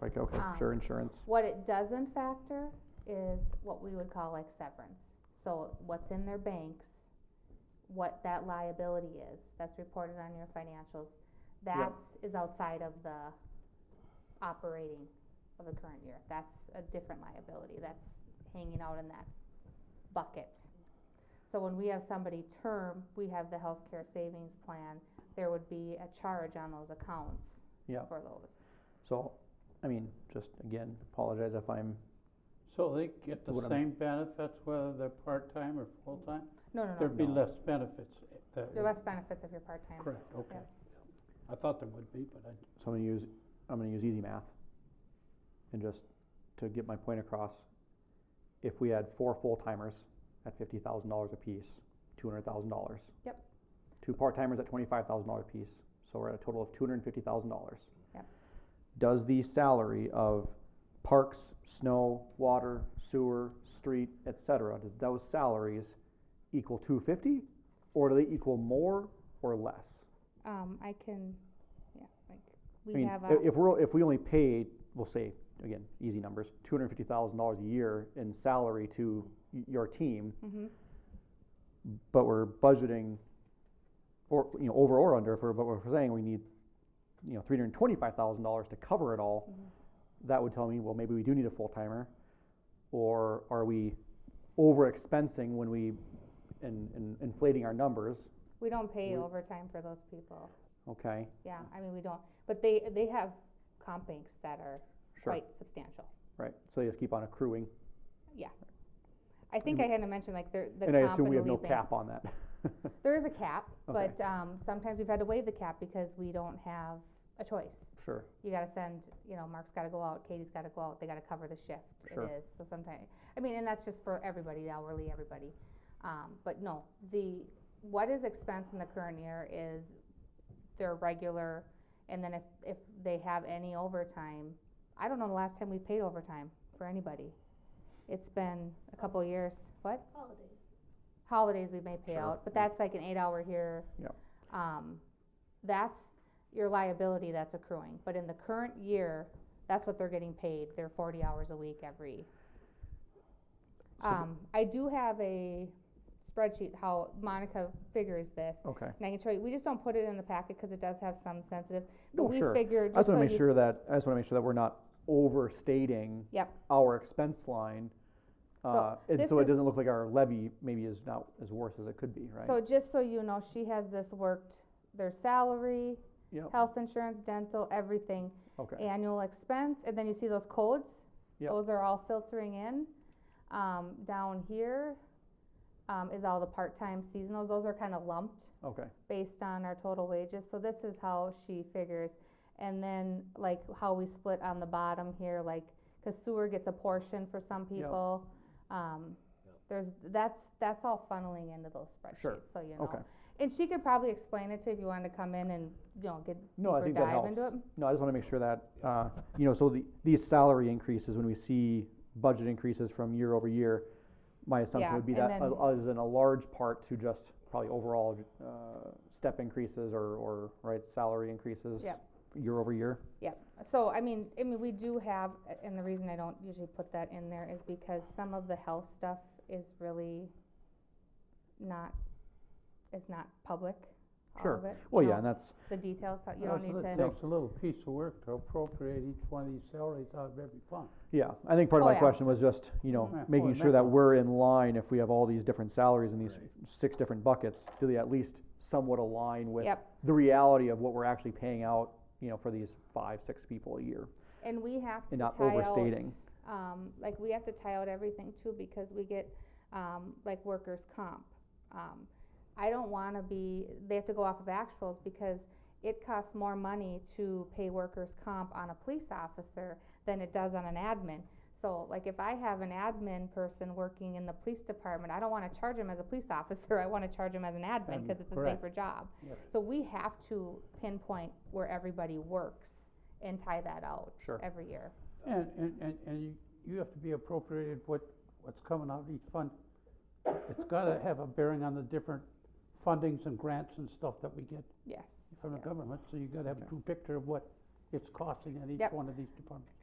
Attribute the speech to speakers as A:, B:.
A: like, okay,
B: Um,
A: sure, insurance,
B: What it doesn't factor is what we would call like severance. So what's in their banks, what that liability is, that's reported on your financials. That is outside of the operating of the current year. That's a different liability. That's hanging out in that bucket. So when we have somebody term, we have the healthcare savings plan, there would be a charge on those accounts
A: Yeah.
B: for those.
A: so, I mean, just again, apologize if I'm,
C: So they get the
A: What I'm-
C: same benefits whether they're part-time or full-time?
B: No, no, no.
C: There'd be
A: No.
C: less benefits. eh, that
B: There are
C: would-
B: less benefits if you're part-time.
C: Correct, okay. I thought there would be, but I,
A: so I'm gonna use, I'm gonna use easy math. And just to get my point across, if we had four full-timers at fifty thousand dollars apiece, two hundred thousand dollars.
B: Yep.
A: Two part-timers at twenty-five thousand dollar apiece, so we're at a total of two hundred and fifty thousand dollars.
B: Yep.
A: Does the salary of parks, snow, water, sewer, street, et cetera, does those salaries equal two fifty? Or do they equal more or less?
B: Um, I can, yeah, like,
A: I
B: we
A: mean,
B: have um,
A: i-
B: a,
A: if we're, if we only pay, we'll say, again, easy numbers, two hundred and fifty thousand dollars a year in salary to y- your team,
B: mhm.
A: but we're budgeting, or, you know, over or under, if we're, but we're saying we need, you know, three hundred and twenty-five thousand dollars to cover it all,
B: Mm-hmm.
A: that would tell me, well, maybe we do need a full-timer, or are we over-expensing when we, and, and inflating our numbers,
B: we don't pay
A: we-
B: overtime for those people,
A: okay?
B: yeah, I mean, we don't, but they, they have comp banks that are
A: Sure,
B: quite substantial,
A: right, so they just keep on accruing,
B: yeah. I think I had to mention, like, there, the
A: and I
B: comp
A: assume
B: and
A: we
B: the
A: have no
B: lead banks,
A: cap on that.
B: there is a cap,
A: Okay.
B: but, um, sometimes we've had to waive the cap because we don't have a choice.
A: Sure,
B: you gotta send, you know, Mark's gotta go out, Katie's gotta go out, they gotta cover the shift,
A: Sure.
B: it is, so sometimes, I mean, and that's just for everybody, the hourly, everybody. Um, but no, the, what is expense in the current year is their regular, and then if, if they have any overtime, I don't know the last time we paid overtime for anybody. It's been a couple of years, what? Holidays. Holidays we may pay
A: Sure.
B: out, but that's like an eight hour here.
A: Yep.
B: Um, that's your liability that's accruing, but in the current year, that's what they're getting paid, they're forty hours a week every.
A: So the-
B: Um, I do have a spreadsheet how Monica figures this,
A: okay.
B: and I can show you, we just don't put it in the packet, cause it does have some sensitive, but
A: No,
B: we
A: sure.
B: figure,
A: I
B: just
A: just
B: so
A: wanna make
B: you,
A: sure that, I just wanna make sure that we're not overstating.
B: Yep.
A: Our expense line, uh, and
B: this
A: so it
B: is-
A: doesn't look like our levy maybe is not as worse as it could be, right?
B: so just so you know, she has this worked, their salary,
A: Yep,
B: health insurance, dental, everything,
A: okay,
B: annual expense, and then you see those codes?
A: Yep.
B: Those are all filtering in. Um, down here, um, is all the part-time seasonals, those are kinda lumped
A: okay,
B: based on our total wages, so this is how she figures. And then, like, how we split on the bottom here, like, cause sewer gets a portion for some people. Um, there's, that's, that's all funneling into those
A: Sure.
B: spreadsheets, so you know.
A: okay.
B: And she could probably explain it to you if you wanted to come in and, you know, get
A: No, I
B: deeper
A: think that
B: dive into it.
A: helps. No, I just wanna make sure that, uh, you know, so the, these salary increases, when we see budget increases from year over year, my assumption
B: Yeah,
A: would be
B: and
A: that,
B: then-
A: uh, is in a large part to just probably overall, uh, step increases or, or, right, salary increases.
B: Yep.
A: Year over year,
B: So, I mean, I mean, we do have, a- and the reason I don't usually put that in there is because some of the health stuff is really not, is not public, all of
A: Sure.
B: it. you
A: well, yeah,
B: know,
A: and that's,
B: The details, how- you
C: Well,
B: don't need
C: so
B: to.
C: It takes a little piece of work to appropriate each one of these salaries out of every fund.
A: Yeah, I think part of
B: Oh,
A: my
B: yeah.
A: question was just, you know,
C: Yeah,
A: making
C: well,
A: sure that
C: definitely.
A: we're in line if we have all these different salaries in these
D: Right.
A: six different buckets, do they at least somewhat align with
B: Yep.
A: the reality of what we're actually paying out, you know, for these five, six people a year,
B: And we have to
A: and
B: tie out.
A: not overstating.
B: um, like we have to tie out everything too because we get, um, like workers' comp. Um, I don't wanna be, they have to go off of actuals because it costs more money to pay workers' comp on a police officer than it does on an admin. So like if I have an admin person working in the police department, I don't wanna charge him as a police officer, I wanna charge him as an admin,
C: Um,
B: cause it's a
C: correct.
B: safer job.
C: Yes.
B: So we have to pinpoint where everybody works and tie that out
A: Sure.
B: every year.
C: And, and, and, and you, you have to be appropriated what, what's coming out of each fund. It's gotta have a bearing on the different fundings and grants and stuff that we get
B: Yes.
C: from the
B: yes.
C: government, so you gotta have a true picture of what it's costing in each
B: Yep.
C: one of these departments.